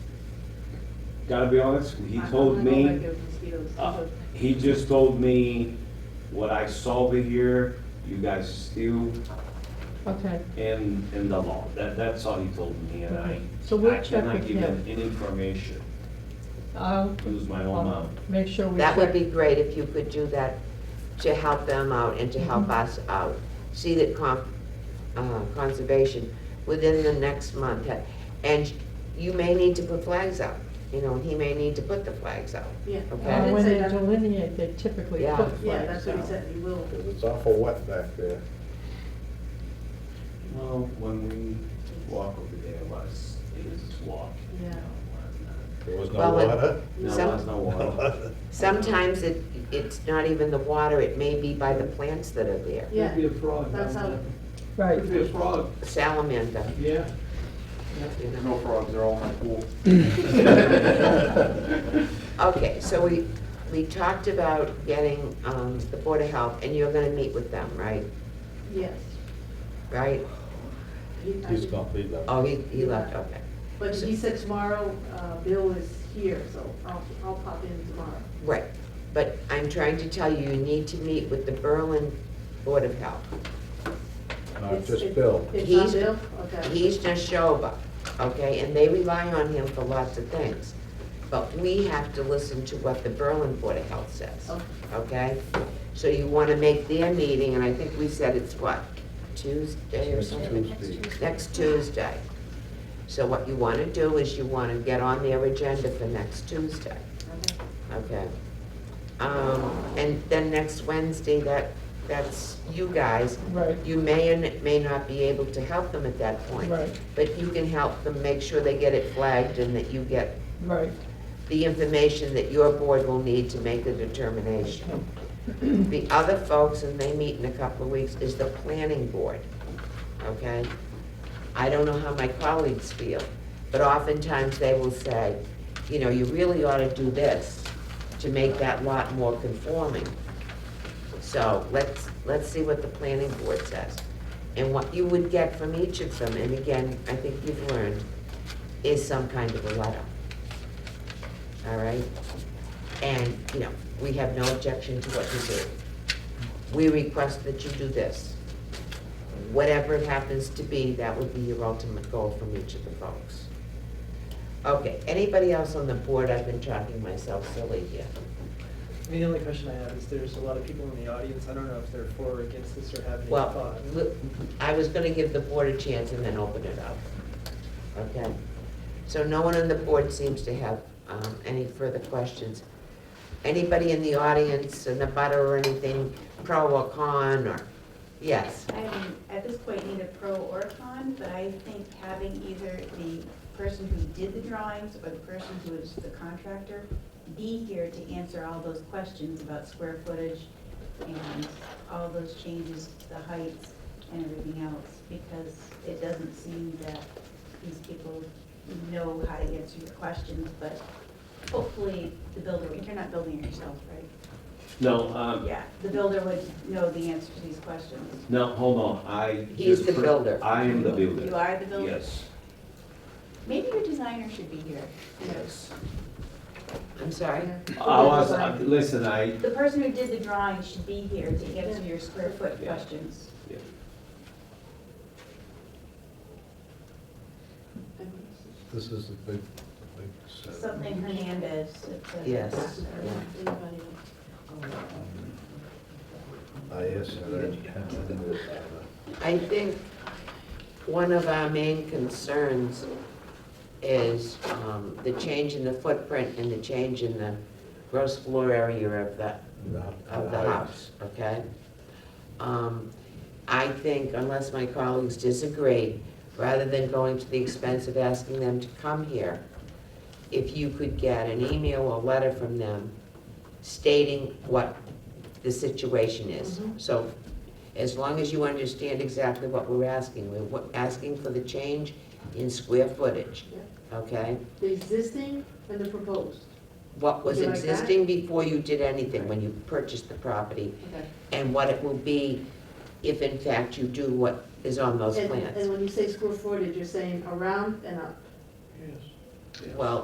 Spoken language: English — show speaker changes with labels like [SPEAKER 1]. [SPEAKER 1] gotta be honest, he told me, uh, he just told me what I saw over here, you guys still
[SPEAKER 2] Okay,
[SPEAKER 1] in, in the law. That, that's all he told me and I,
[SPEAKER 2] Okay. So we'll
[SPEAKER 1] I
[SPEAKER 2] check
[SPEAKER 1] cannot
[SPEAKER 2] with
[SPEAKER 1] give him
[SPEAKER 2] him.
[SPEAKER 1] any information,
[SPEAKER 2] I'll,
[SPEAKER 1] use my
[SPEAKER 3] Um,
[SPEAKER 1] own
[SPEAKER 2] I'll
[SPEAKER 1] mouth.
[SPEAKER 2] make sure we.
[SPEAKER 4] That would
[SPEAKER 2] check.
[SPEAKER 4] be great if you could do that to help them out and to help us out. See that con- uh, conservation within the next month. And you may need to put flags out, you know, and he may need to put the flags out.
[SPEAKER 3] Yeah.
[SPEAKER 4] Okay.
[SPEAKER 2] Uh,
[SPEAKER 3] I did
[SPEAKER 2] When
[SPEAKER 3] say
[SPEAKER 2] they
[SPEAKER 3] that.
[SPEAKER 2] delineate, they typically
[SPEAKER 4] Yeah.
[SPEAKER 2] put
[SPEAKER 3] Yeah,
[SPEAKER 2] flags
[SPEAKER 3] that's what he
[SPEAKER 2] out.
[SPEAKER 3] said, you will.
[SPEAKER 5] Because it's awful wet back there.
[SPEAKER 1] Well, when we walk over there, it was, it is walk. you
[SPEAKER 3] Yeah.
[SPEAKER 1] know, and, uh,
[SPEAKER 5] There was no
[SPEAKER 4] Well, it-
[SPEAKER 5] water.
[SPEAKER 1] No,
[SPEAKER 4] Some-
[SPEAKER 1] it was no water.
[SPEAKER 4] Sometimes it, it's not even the water, it may be by the plants that are there.
[SPEAKER 3] Yeah,
[SPEAKER 1] Could be a frog.
[SPEAKER 3] that's
[SPEAKER 1] down
[SPEAKER 3] how-
[SPEAKER 1] there.
[SPEAKER 2] Right,
[SPEAKER 1] Could be a frog,
[SPEAKER 4] Salamander,
[SPEAKER 1] yeah.
[SPEAKER 4] you know.
[SPEAKER 6] No frogs, they're all in my pool.
[SPEAKER 4] Okay, so we, we talked about getting um, the Board of Health, and you're gonna meet with them, right?
[SPEAKER 3] yes.
[SPEAKER 4] Right?
[SPEAKER 3] He- I
[SPEAKER 5] He's
[SPEAKER 3] did-
[SPEAKER 5] complete left.
[SPEAKER 4] Oh, he, he left, okay.
[SPEAKER 3] But he said tomorrow, uh, Bill is here, so I'll, I'll pop in tomorrow.
[SPEAKER 4] Right, but I'm trying to tell you, you need to meet with the Berlin Board of Health.
[SPEAKER 1] Uh,
[SPEAKER 5] No,
[SPEAKER 3] It's-
[SPEAKER 5] just
[SPEAKER 3] it-
[SPEAKER 5] Bill.
[SPEAKER 3] It's
[SPEAKER 4] He's-
[SPEAKER 3] not Bill? Okay.
[SPEAKER 4] He's Nashoba, okay, and they rely on him for lots of things. But we have to listen to what the Berlin Board of Health says,
[SPEAKER 3] Okay.
[SPEAKER 4] okay? So you wanna make their meeting, and I think we said it's what, Tuesday or
[SPEAKER 5] Next
[SPEAKER 4] something?
[SPEAKER 5] Tuesday.
[SPEAKER 4] next Tuesday. So what you want to do is you want to get on their agenda for next Tuesday,
[SPEAKER 3] Okay.
[SPEAKER 4] okay? Um, And then next Wednesday, that, that's you guys.
[SPEAKER 2] right,
[SPEAKER 4] You may and may not be able to help them at that point.
[SPEAKER 2] Right.
[SPEAKER 4] But you can help them make sure they get it flagged and that you get
[SPEAKER 2] right.
[SPEAKER 4] the information that your board will need to make the determination. The other folks, and they meet in a couple of weeks, is the planning board, okay? I don't know how my colleagues feel, but oftentimes they will say, you know, you really ought to do this to make that lot more conforming. So let's, let's see what the planning board says. And what you would get from each of them, and again, I think you've learned, is some kind of a letter all right? And, you know, we have no objection to what you do. We request that you do this. Whatever it happens to be, that would be your ultimate goal from each of the folks. Okay, anybody else on the board? I've been talking myself silly here.
[SPEAKER 7] The only question I have is there's a lot of people in the audience, I don't know if they're for or against this or have any
[SPEAKER 4] Well,
[SPEAKER 7] thought.
[SPEAKER 4] look, I was gonna give the board a chance and then open it up. Okay? So no one on the board seems to have um, any further questions. Anybody in the audience, in the butter or anything, pro or con, or, yes?
[SPEAKER 8] I don't, at this point, need a pro or a con, but I think having either the person who did the drawings or the person who is the contractor be here to answer all those questions about square footage and all those changes, the heights and everything else, because it doesn't seem that these people know how to answer your questions, but hopefully the builder, you're not building it yourself, right?
[SPEAKER 1] No, um,
[SPEAKER 8] Yeah, the builder would know the answer to these questions.
[SPEAKER 1] no, hold on, I.
[SPEAKER 4] He's
[SPEAKER 1] just
[SPEAKER 4] the
[SPEAKER 1] put-
[SPEAKER 4] builder.
[SPEAKER 1] I am the builder.
[SPEAKER 8] You are the builder?
[SPEAKER 1] Yes,
[SPEAKER 8] Maybe your designer should be here.
[SPEAKER 1] yes.
[SPEAKER 4] I'm sorry?
[SPEAKER 1] I was, I- listen, I,
[SPEAKER 8] The person who did the drawing should be here to answer your square foot
[SPEAKER 1] Yeah.
[SPEAKER 8] questions.
[SPEAKER 5] This is the big, the big set.
[SPEAKER 8] Something Hernandez. it's a-
[SPEAKER 4] Yes.
[SPEAKER 3] Anybody else?
[SPEAKER 5] I asked her, I didn't have to do uh, it.
[SPEAKER 4] I think one of our main concerns is um, the change in the footprint and the change in the gross floor area of the of the house, okay? Um, I think unless my colleagues disagree, rather than going to the expense of asking them to come here, if you could get an email or letter from them stating what the situation is.
[SPEAKER 3] Mm-hmm.
[SPEAKER 4] So as long as you understand exactly what we're asking, we're wa- asking for the change in square footage, okay?
[SPEAKER 3] The existing and the proposed.
[SPEAKER 4] What was
[SPEAKER 3] Would you like that?
[SPEAKER 4] existing before you did anything, when you purchased the property,
[SPEAKER 3] Okay.
[SPEAKER 4] and what it will be if in fact you do what is on those
[SPEAKER 3] And, and
[SPEAKER 4] plans.
[SPEAKER 3] when you say square footage, you're saying around and up.
[SPEAKER 5] Yes.
[SPEAKER 4] Well,